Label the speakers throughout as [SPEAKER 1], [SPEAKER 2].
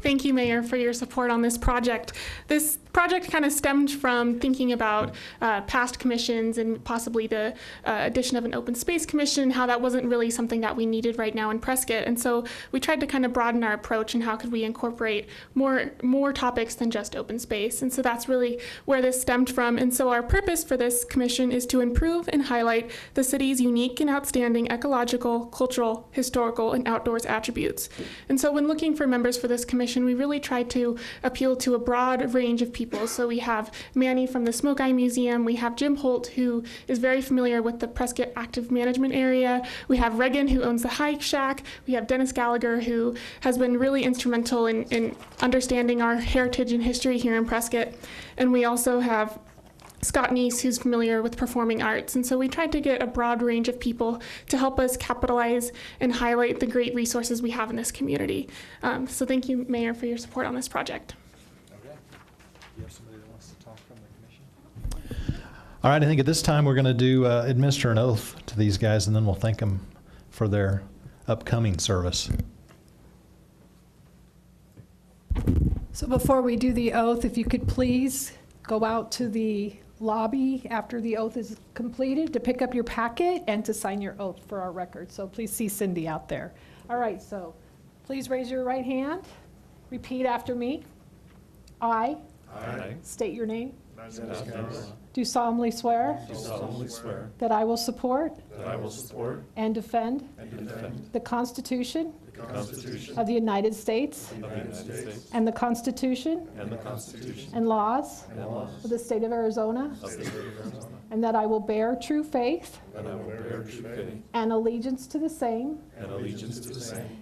[SPEAKER 1] Thank you, Mayor, for your support on this project. This project kind of stemmed from thinking about uh, past commissions and possibly the uh, addition of an open space commission, how that wasn't really something that we needed right now in Prescott. And so we tried to kind of broaden our approach and how could we incorporate more more topics than just open space. And so that's really where this stemmed from. And so our purpose for this commission is to improve and highlight the city's unique and outstanding ecological, cultural, historical, and outdoors attributes. And so when looking for members for this commission, we really tried to appeal to a broad range of people. So we have Manny from the Smoke Eye Museum, we have Jim Holt, who is very familiar with the Prescott Active Management Area, we have Regan, who owns the Hike Shack, we have Dennis Gallagher, who has been really instrumental in, in understanding our heritage and history here in Prescott. And we also have Scott Neese, who's familiar with performing arts. And so we tried to get a broad range of people to help us capitalize and highlight the great resources we have in this community. Um, so thank you, Mayor, for your support on this project.
[SPEAKER 2] Okay. Do you have somebody that wants to talk from the commission?
[SPEAKER 3] All right, I think at this time, we're going to do, uh, administer an oath to these guys, and then we'll thank them for their upcoming service.
[SPEAKER 4] So before we do the oath, if you could please go out to the lobby after the oath is completed to pick up your packet and to sign your oath for our record. So please see Cindy out there. All right, so please raise your right hand. Repeat after me. I
[SPEAKER 2] Aye.
[SPEAKER 4] state your name. Do solemnly swear
[SPEAKER 2] Do solemnly swear
[SPEAKER 4] that I will support
[SPEAKER 2] that I will support
[SPEAKER 4] and defend
[SPEAKER 2] and defend
[SPEAKER 4] the Constitution
[SPEAKER 2] the Constitution
[SPEAKER 4] of the United States
[SPEAKER 2] of the United States
[SPEAKER 4] and the Constitution
[SPEAKER 2] and the Constitution
[SPEAKER 4] and laws
[SPEAKER 2] and laws
[SPEAKER 4] of the state of Arizona
[SPEAKER 2] of the state of Arizona,
[SPEAKER 4] And that I will bear true faith
[SPEAKER 2] and I will bear true faith
[SPEAKER 4] and allegiance to the same
[SPEAKER 2] and allegiance to the same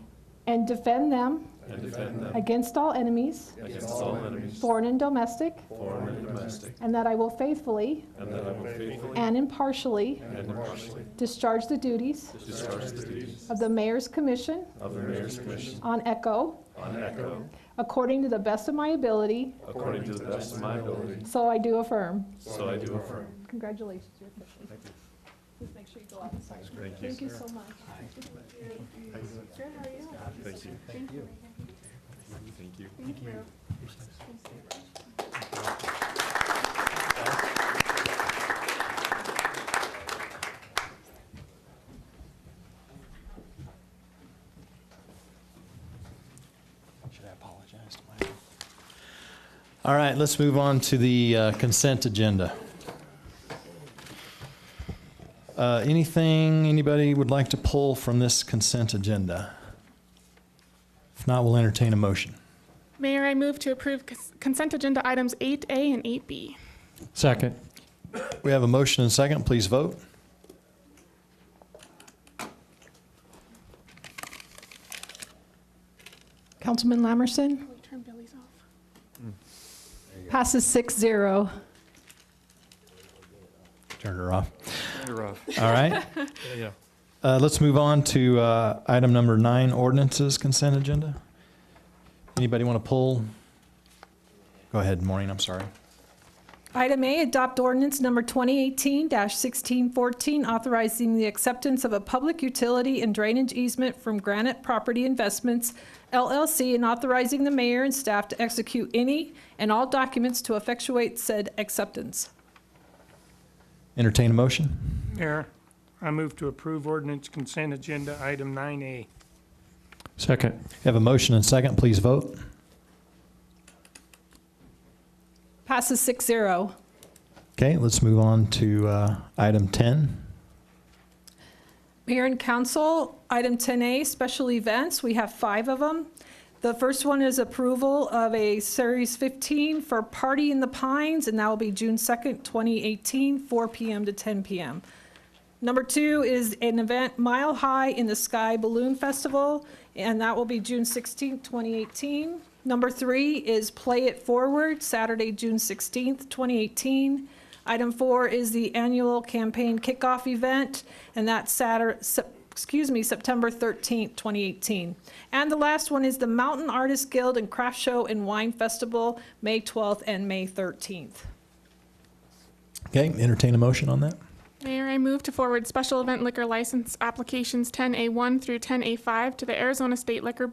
[SPEAKER 4] and defend them
[SPEAKER 2] and defend them
[SPEAKER 4] against all enemies,
[SPEAKER 2] against all enemies,
[SPEAKER 4] foreign and domestic,
[SPEAKER 2] foreign and domestic,
[SPEAKER 4] and that I will faithfully
[SPEAKER 2] and that I will faithfully
[SPEAKER 4] and impartially
[SPEAKER 2] and impartially
[SPEAKER 4] discharge the duties
[SPEAKER 2] discharge the duties
[SPEAKER 4] of the Mayor's Commission
[SPEAKER 2] of the Mayor's Commission
[SPEAKER 4] on ECHO
[SPEAKER 2] on ECHO
[SPEAKER 4] according to the best of my ability,
[SPEAKER 2] according to the best of my ability,
[SPEAKER 4] so I do affirm.
[SPEAKER 2] so I do affirm.
[SPEAKER 4] Congratulations, you're official. Please make sure you go out and sign. Thank you so much.
[SPEAKER 2] Thank you. Thank you.
[SPEAKER 5] Should I apologize to myself?
[SPEAKER 3] All right, let's move on to the uh, consent agenda. Uh, Anything anybody would like to pull from this consent agenda? If not, we'll entertain a motion.
[SPEAKER 1] Mayor, I move to approve cons- consent agenda items 8A and 8B.
[SPEAKER 5] Second.
[SPEAKER 3] We have a motion and second, please vote.
[SPEAKER 4] Councilman Lamerson?
[SPEAKER 1] Can we turn Billy's off?
[SPEAKER 4] Passes six zero.
[SPEAKER 3] Turned her off.
[SPEAKER 5] You're off.
[SPEAKER 3] All right.
[SPEAKER 5] Yeah.
[SPEAKER 3] Uh, Let's move on to uh, item number nine, ordinances consent agenda. Anybody want to pull? Go ahead, Maureen, I'm sorry.
[SPEAKER 4] Item A, adopt ordinance number 2018-1614, authorizing the acceptance of a public utility and drainage easement from Granite Property Investments LLC and authorizing the mayor and staff to execute any and all documents to effectuate said acceptance.
[SPEAKER 3] Entertain a motion?
[SPEAKER 6] Mayor, I move to approve ordinance consent agenda item 9A.
[SPEAKER 5] Second.
[SPEAKER 3] Have a motion and second, please vote.
[SPEAKER 4] Passes 6-0.
[SPEAKER 3] Okay, let's move on to uh, item 10.
[SPEAKER 4] Mayor and council, item 10A, special events, we have five of them. The first one is approval of a Series 15 for Party in the Pines, and that will be June 2nd, 2018, 4 PM to 10 PM. Number two is an event Mile High in the Sky Balloon Festival, and that will be June 16th, 2018. Number three is Play It Forward, Saturday, June 16th, 2018. Item four is the annual campaign kickoff event, and that's Saturday, excuse me, September 13th, 2018. And the last one is the Mountain Artists Guild and Craft Show and Wine Festival, May 12th and May 13th.
[SPEAKER 3] Okay, entertain a motion on that?
[SPEAKER 1] Mayor, I move to forward special event liquor license applications 10A1 through 10A5 to the Arizona State Liquor